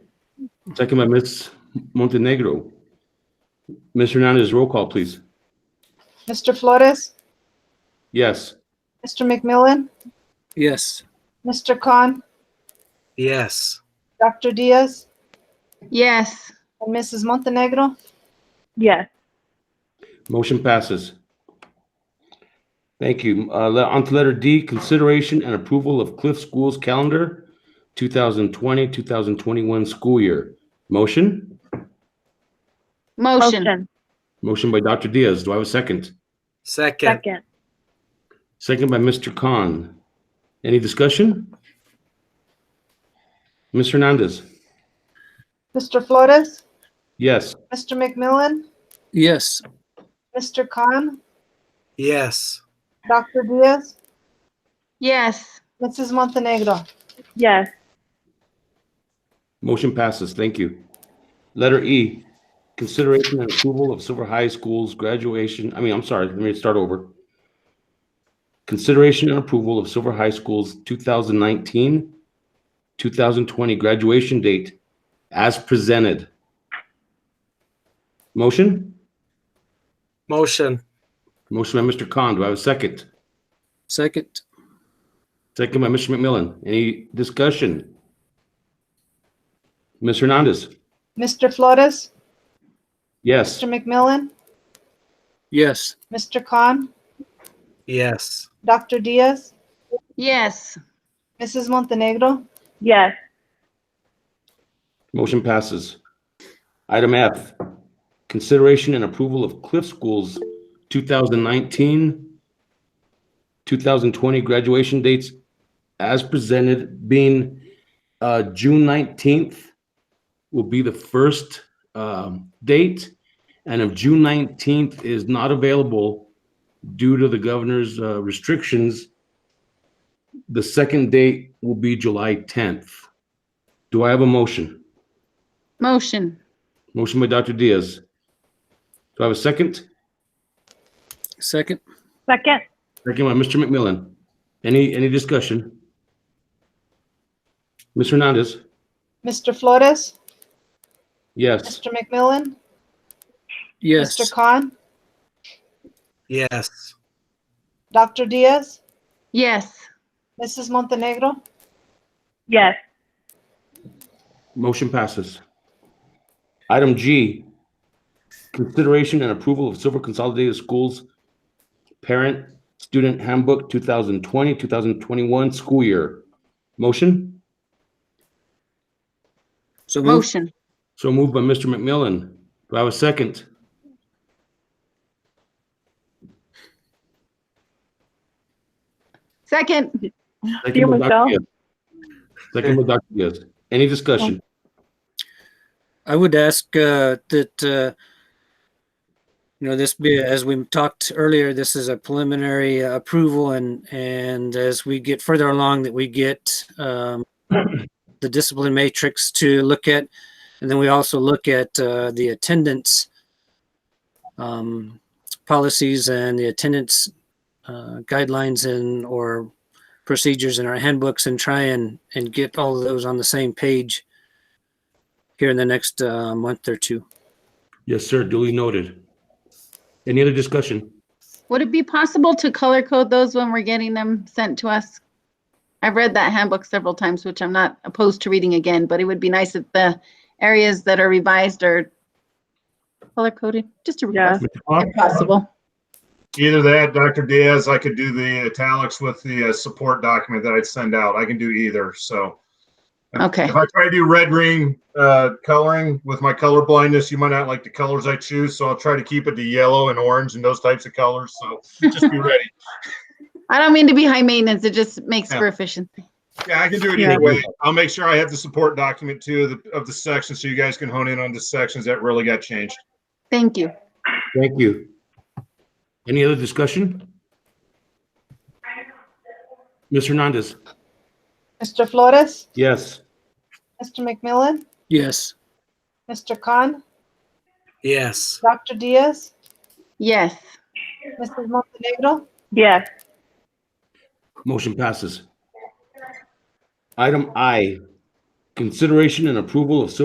Second by Ms. Montenegro. Ms. Hernandez, roll call, please. Mr. Flores, Yes. Mr. McMillan, Yes. Mr. Khan, Yes. Dr. Diaz, Yes. and Mrs. Montenegro. Yes. Motion passes. Thank you. Uh, le- On to letter D, consideration and approval of Cliff Schools Calendar 2020-2021 school year. Motion? Motion. Motion by Dr. Diaz. Do I have a second? Second. Second by Mr. Khan. Any discussion? Ms. Hernandez? Mr. Flores, Yes. Mr. McMillan, Yes. Mr. Khan, Yes. Dr. Diaz, Yes. Mrs. Montenegro. Yes. Motion passes. Thank you. Letter E, consideration and approval of Silver High School's graduation, I mean, I'm sorry, let me start over. Consideration and approval of Silver High School's 2019, 2020 graduation date as presented. Motion? Motion. Motion by Mr. Khan. Do I have a second? Second. Second by Mr. McMillan. Any discussion? Ms. Hernandez? Mr. Flores, Yes. Mr. McMillan, Yes. Mr. Khan, Yes. Dr. Diaz, Yes. Mrs. Montenegro. Yes. Motion passes. Item F, consideration and approval of Cliff Schools 2019, 2020 graduation dates as presented, being uh, June 19th will be the first um, date. And if June 19th is not available due to the governor's uh, restrictions, the second date will be July 10th. Do I have a motion? Motion. Motion by Dr. Diaz. Do I have a second? Second. Second. Second by Mr. McMillan. Any, any discussion? Ms. Hernandez? Mr. Flores, Yes. Mr. McMillan, Mr. Yes. Khan, Yes. Dr. Diaz, Yes. Mrs. Montenegro. Yes. Motion passes. Item G, consideration and approval of Silver Consolidated Schools Parent Student Handbook 2020, 2021 school year. Motion? So moved. Motion. So moved by Mr. McMillan. Do I have a second? Second. Second by Feel Dr. myself. Diaz. Second by Dr. Diaz. Any discussion? I would ask uh, that, uh, you know, this be, as we talked earlier, this is a preliminary uh, approval and, and as we get further along that we get um, the discipline matrix to look at, and then we also look at uh, the attendance um, policies and the attendance uh, guidelines and, or procedures in our handbooks and try and, and get all of those on the same page here in the next uh, month or two. Yes, sir, duly noted. Any other discussion? Would it be possible to color code those when we're getting them sent to us? I've read that handbook several times, which I'm not opposed to reading again, but it would be nice if the areas that are revised are color coded, just a request, if possible. Either that, Dr. Diaz, I could do the italics with the uh, support document that I'd send out. I can do either, so. Okay. If I try to do red ring uh, coloring with my color blindness, you might not like the colors I choose, so I'll try to keep it to yellow and orange and those types of colors, so just be ready. I don't mean to be high maintenance, it just makes Yeah. for efficiency. Yeah, I can do it Yeah. either way. I'll make sure I have the support document too of the, of the section, so you guys can hone in on the sections that really got changed. Thank you. Thank you. Any other discussion? Ms. Hernandez? Mr. Flores, Yes. Mr. McMillan, Yes. Mr. Khan, Yes. Dr. Diaz, Yes. Mrs. Este Montenegro. Yes. Motion passes. Item I, consideration and approval of Silver